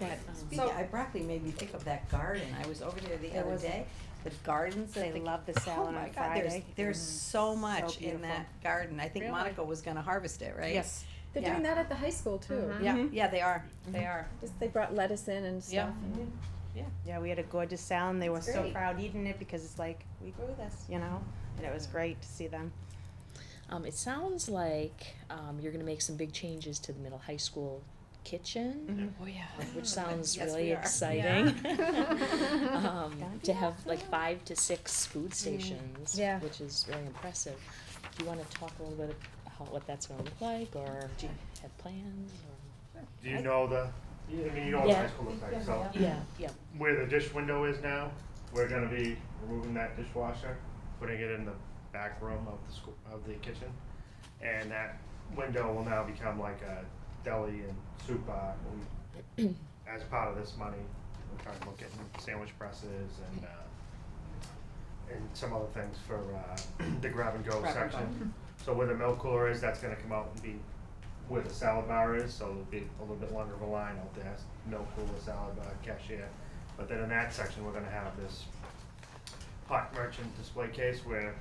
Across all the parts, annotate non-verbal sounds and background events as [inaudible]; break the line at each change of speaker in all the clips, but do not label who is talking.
That,
So-
um,
I, broccoli made me think of that garden, I was over there the
There
other
was-
day, the gardens that
they
the.
love [laughs] the
oh
salad
my
on
God, there's-
Friday. Mm-hmm.
There's so much in
beautiful.
that garden, I think
Really?
Monica was gonna harvest it, right? Mm-hmm.
yes,
They're doing that at the high school too.
Mhm.
Yeah,
Mhm.
yeah, they are, they are.
Just they brought lettuce in and stuff.
Yeah.
yeah, we had a gorgeous salad, and they were
It's
so
great.
proud eating it because it's like, we grew this, you know, and it was great to see them.
Um, it sounds like um, you're going to make some big changes to the middle high school kitchen,
Oh, yeah.
which sounds
Yes,
really
we are.
exciting.
Yeah.
[laughs] um,
Gonna be
to have like five to six food stations,
Yeah.
which is really impressive. Do you want to talk a little bit how what that's going to look like, or do you have plans?
Do you know the, I mean, you know what the
Yeah.
high school looks like, so
Or? Yeah, yeah.
where the dish window is now, we're gonna be removing that dishwasher, putting it in the back room of the school, of the kitchen. And that window will now become like a deli and soup bar. We- [clears throat] As part of this money, we're trying to look at sandwich presses and, uh, and some other things for, uh, [clears throat] the grab and go Mm-hmm.
Grab and go.
section. So where the milk cooler is, that's gonna come out and be where the salad bar is, so it'll be a little bit longer of a line out there, milk cooler, salad bar, cashier. But then in that section, we're gonna have this hot merchant display case where,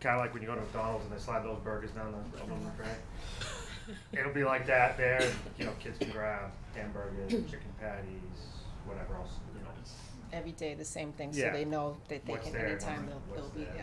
kinda like when you go to McDonald's and they slide those burgers down the aluminum tray. It'll be like that there, and, you know, kids can grab hamburgers, chicken patties, whatever else, you know.
Every day the same thing, so
Yeah.
they know that they
What's
can,
there,
anytime
what's-
they'll, they'll
what's
be,
there.
yeah.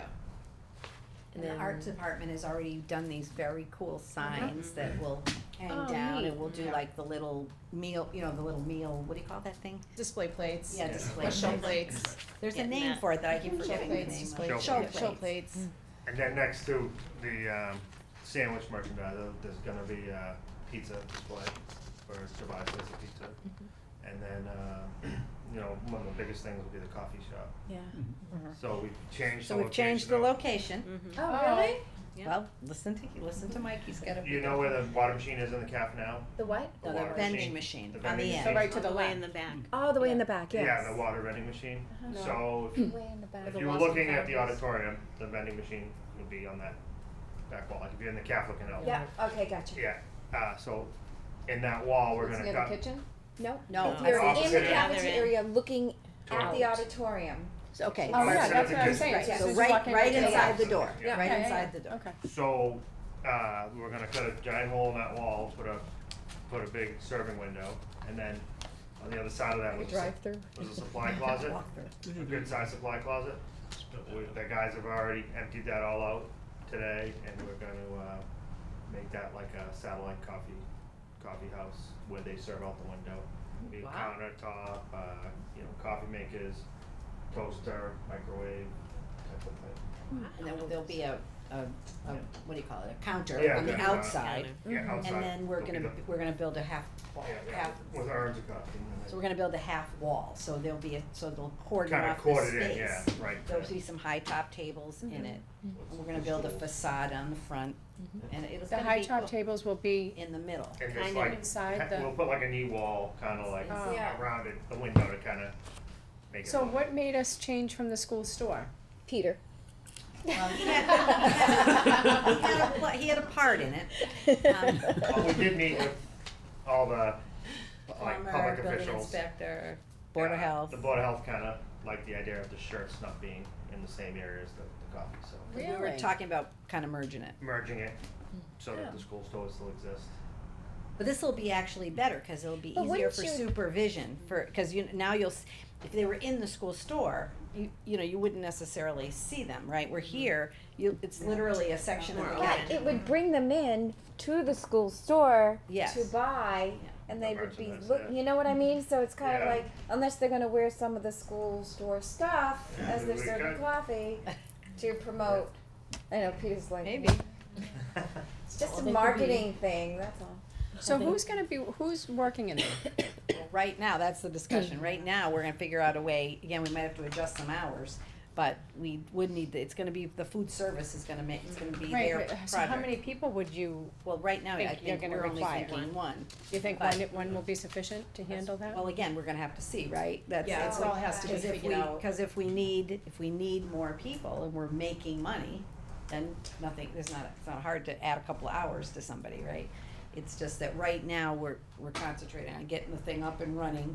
And
And the
then
art department has already done these very cool signs that will hang
Oh,
down
neat.
and we'll do
Yeah.
like the little meal, you know, the little meal, what do you call that thing?
Display plates.
Yeah, display
Or show
plates.
plates,
There's a
Yeah,
name
that-
for it that I keep
show
forgetting the name
plates, Mm-hmm.
of.
display,
Show
show,
plates.
show plates.
And then next to the um, sandwich merchandise, uh, there's gonna be a pizza display for Tobias Place of Pizza. And then, um, [clears throat] you know, one of the biggest things will be the coffee shop.
Yeah.
Mm-hmm.
So we've changed the
So
location.
we've changed the
of-
location.
Oh, really?
Yeah.
Well, listen to, listen to Mike, he's got a.
You know where the water machine is in the calf now?
The what?
No,
water
the vending machine
The
on
vending
the
machine.
So
end.
right to the
way
left.
in the back.
Oh, the way in
Yeah.
the back. Yes.
Yeah, the water vending machine.
No.
So if-
Way in the back.
if
the
you were
walls and
looking at the
counters.
auditorium, the vending machine would be on that back wall, like if you're in the calf looking out.
Yeah. Okay. Gotcha.
Yeah, uh, so in that wall, we're
It's
gonna
near
cut.
the kitchen?
No.
No,
You're
I-
in the
Opposite end.
cafeteria, looking at the
Out.
auditorium.
okay.
Oh,
Mark's
yeah,
at
that's
the
what I'm
kitchen.
saying.
Yeah.
As soon
So
as you
right,
walk in,
right
it's-
inside the
Yeah.
door,
Yeah.
right
Yeah, yeah,
inside the
yeah.
door.
Okay.
So, uh, we're gonna cut a giant hole in that wall, put a, put a big serving window, and then on the other side of that was, a sup-
Drive-through.
was a supply closet,
Walk through.
a good sized supply closet. We- The guys have already emptied that all out today, and we're gonna, uh, make that like a satellite coffee, coffee house where they serve out the window. Be a
Wow.
countertop, uh, you know, coffee makers, toaster, microwave, type of thing.
And then there'll be a, a, a, what do you call it, a counter
Yeah,
on the
yeah, uh,
outside.
Yeah, outside.
Mm-hmm. And then we're
there'll be
gonna,
the-
we're gonna build a half wall,
Yeah, yeah,
half,
with orange coffee. and
so we're gonna build a half wall, so there'll be a, so they'll cordon
Kinda
off the space.
corded in, yeah, right,
There'll
yeah.
be some high top tables in it,
then
we're gonna build a facade on the front, and it's
The
gonna
high
be
top
cool.
tables will be
in the middle.
And
kind
just
of
like,
inside
he-
the-
we'll put like a knee wall, kinda like
Oh.
Yeah.
around it, the window to kinda make it.
So
look-
what made us change from the school store?
Peter. [laughs]
Um, he, had, he, had a, pla- he had a part in it. Um,
Well, we did meet with all the, like,
plumber,
public
building
officials.
inspector, board of
Uh,
health.
The board of health kinda liked the idea of the shirts not being in the same area as the, the coffee, so
We were talking about kind of merging it.
merging it so that the school stores still exist.
But this will be actually better because it'll be
But
easier
wouldn't
for
you-
supervision for because you now you'll s- if they were in the school store you you know you wouldn't necessarily see them right we're
Mm-hmm.
here you it's literally a section of the
But
kitchen.
it would bring them in to the school store
Yes.
to buy,
Yeah.
and they would be,
Merchandise,
look,
yeah.
you know what I mean? So it's kind of
Yeah.
like, unless they're gonna wear some of the school store stuff
Yeah,
as they're
we
serving
got-
coffee
[laughs]
to promote. I know Peter's like,
maybe
it's just a
Well, they could
marketing thing. That's all.
So who's gonna be, who's working in it?
Well, right now that's the discussion
Mm-hmm.
right now we're gonna figure out a way again we might have to adjust some hours but we would need the, it's gonna be the food service is gonna make it's gonna be their
Right,
project
but so how many people would you,
well right now I
think you're
think
gonna
we're only
require?
thinking one
you think one, one will be sufficient to handle that?
well again we're gonna have to see right that's
Yeah,
that's
it all
what-
has to be
Because if
figured
we-
out.
Cause if we need, if we need more people and we're making money, then nothing, there's not, it's not hard to add a couple of hours to somebody, right? It's just that right now, we're, we're concentrating on getting the thing up and running